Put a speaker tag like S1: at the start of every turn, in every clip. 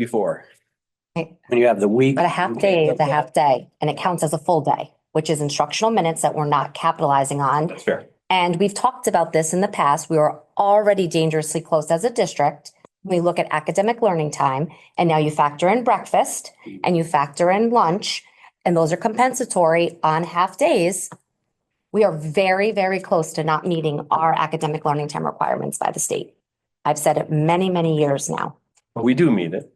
S1: before.
S2: Right.
S1: When you have the week.
S2: But a half day is a half day and it counts as a full day, which is instructional minutes that we're not capitalizing on.
S1: That's fair.
S2: And we've talked about this in the past. We were already dangerously close as a district. We look at academic learning time and now you factor in breakfast and you factor in lunch and those are compensatory on half days. We are very, very close to not meeting our academic learning time requirements by the state. I've said it many, many years now.
S1: But we do meet it.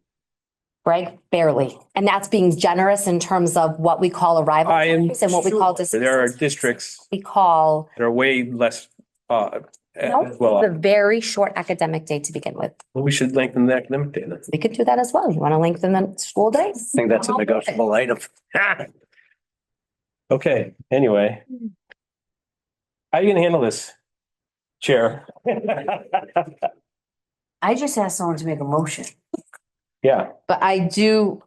S2: Greg, barely. And that's being generous in terms of what we call arrival
S1: I am.
S2: times and what we call.
S1: sure
S2: dismissal
S1: There are
S2: times.
S1: districts
S2: We call,
S1: that are way less, uh, as
S2: Nope,
S1: well.
S2: the very short academic day to begin with.
S1: Well, we should lengthen the academic day then.
S2: We could do that as well. You want to lengthen the school days?
S3: I think that's a
S2: I'll do it.
S3: negotiable item.
S1: Okay, anyway. How you gonna handle this? Chair.
S4: I just asked someone to make a motion,
S1: Yeah,
S4: but I do.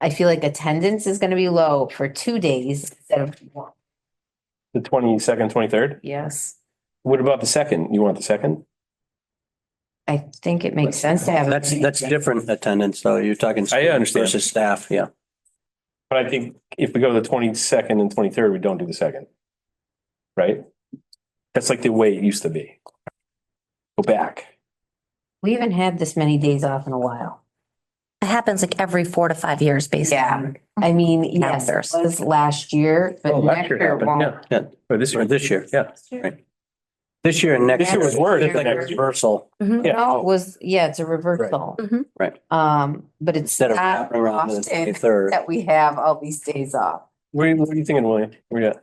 S4: I feel like attendance is gonna be low for two days instead of one.
S1: the twenty-second, twenty-third.
S4: Yes,
S1: What about the second? You want the second?
S4: I think it makes sense to have.
S3: That's, that's different attendance though. You're talking.
S1: I understand.
S3: Versus staff, yeah.
S1: But I think if we go to the twenty-second and twenty-third, we don't do the second. Right? That's like the way it used to be. Go back.
S4: We haven't had this many days off in a while.
S2: It happens like every four to five years, basically.
S4: Yeah, I mean, yes, it
S2: Calendars.
S4: was last year, but
S1: Oh,
S4: next
S1: last
S4: year
S1: happened,
S4: won't.
S1: yeah.
S3: Yeah.
S1: Or this
S3: Or
S1: year.
S3: this year.
S1: Yeah.
S3: This year and next.
S1: This year was worse than
S3: Like a
S1: next year.
S3: reversal
S2: Mhm.
S1: Yeah.
S4: No, it was, yeah, it's a reversal.
S2: Mhm.
S3: Right.
S4: Um, but it's
S3: instead of
S4: not
S3: wrapping around to the
S4: often
S3: twenty-third.
S4: that we have all these days off.
S1: What are you, what are you thinking, William? Where you at?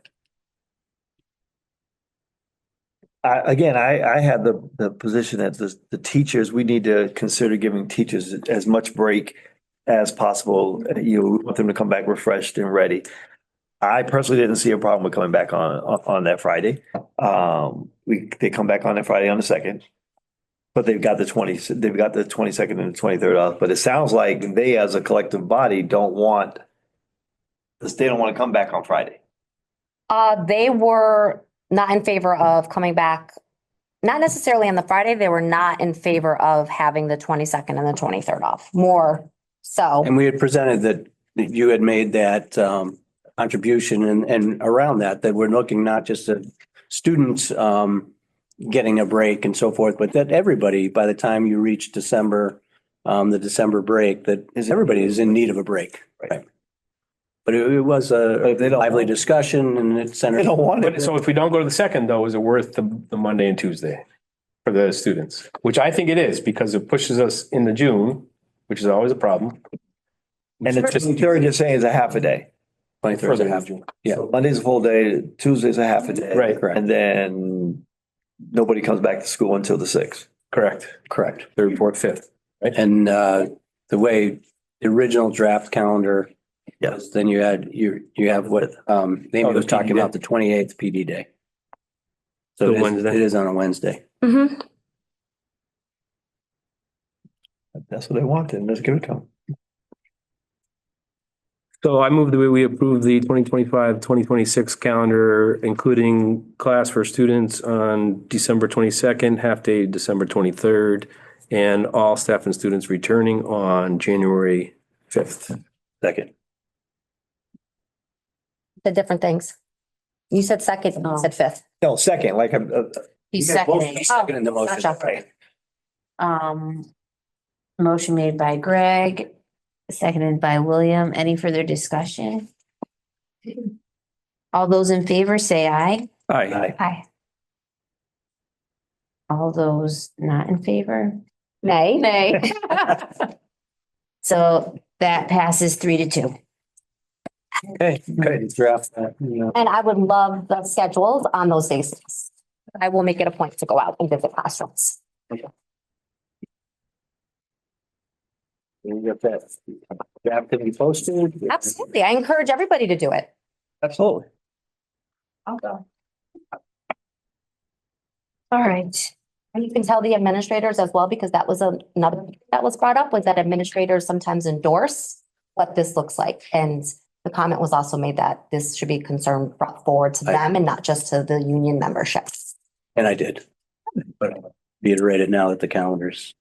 S5: I, again, I, I had the, the position that the, the teachers, we need to consider giving teachers as much break as possible. You know, we want them to come back refreshed and ready. I personally didn't see a problem with coming back on, on, on that Friday. Um, we, they come back on that Friday on the second. But they've got the twenty, they've got the twenty-second and the twenty-third off, but it sounds like they as a collective body don't want, they don't want to come back on Friday.
S2: Uh, they were not in favor of coming back, not necessarily on the Friday. They were not in favor of having the twenty-second and the twenty-third off, more so.
S3: And we had presented that, that you had made that, um, contribution and, and around that, that we're looking not just at students, um, getting a break and so forth, but that everybody, by the time you reach December, um, the December break, that is, everybody is in need of a break.
S5: Right.
S3: But it it was
S5: But
S3: a
S5: if they don't.
S3: lively discussion and it
S5: They
S3: centered.
S5: don't want
S1: But
S5: it.
S1: so if we don't go to the second though, is it worth the, the Monday and Tuesday for the students? Which I think it is because it pushes us into June, which is always a problem.
S5: And the twenty-third, you're saying is a half a day.
S3: Twenty-third
S1: Further into
S3: and a half.
S1: June.
S3: Yeah.
S5: So Monday's a full day, Tuesday's a half a day.
S1: Right,
S3: correct.
S5: And then nobody comes back to school until the sixth.
S1: Correct.
S3: Correct.
S1: Third, fourth, fifth.
S3: And uh, the way the original draft calendar.
S5: Yeah.
S3: was, Then you had, you, you have what, um,
S1: Oh,
S3: Amy
S1: the
S3: was talking
S1: PD day.
S3: about, the twenty-eighth PD day. So
S1: The
S3: it is,
S1: Wednesday.
S3: it is on a Wednesday.
S2: Mhm.
S5: That's what they want, and let's give it to them.
S6: So I move that we approve the 2025-2026 calendar, including class for students on December twenty-second, half-day December twenty-third, and all staff and students returning on January fifth.
S5: Second.
S2: said different things. You said second, you said fifth.
S5: No, second, like, I'm, uh,
S4: He's
S3: You guys both-
S4: seconding.
S3: Second in the motion.
S2: Gotcha.
S4: Um, motion made by Greg, seconded by William. Any further discussion? All those in favor say aye.
S6: Aye.
S5: I,
S4: Aye. All those not in favor?
S2: Nay.
S4: Nay. So that passes three to two.
S3: Okay, okay, draft that, you know.
S2: And I would love the schedules on those days. I will make it a point to go out and visit classrooms.
S3: You get that draft to be posted.
S2: Absolutely. I encourage everybody to do it.
S3: Absolutely.
S4: I'll go. All right.
S2: And you can tell the administrators as well, because that was another that was brought up was that administrators sometimes endorse what this looks like. And the comment was also made that this should be concern brought forward to
S3: Right.
S2: them and not just to the union memberships.
S3: And I did. But reiterated now that the calendar's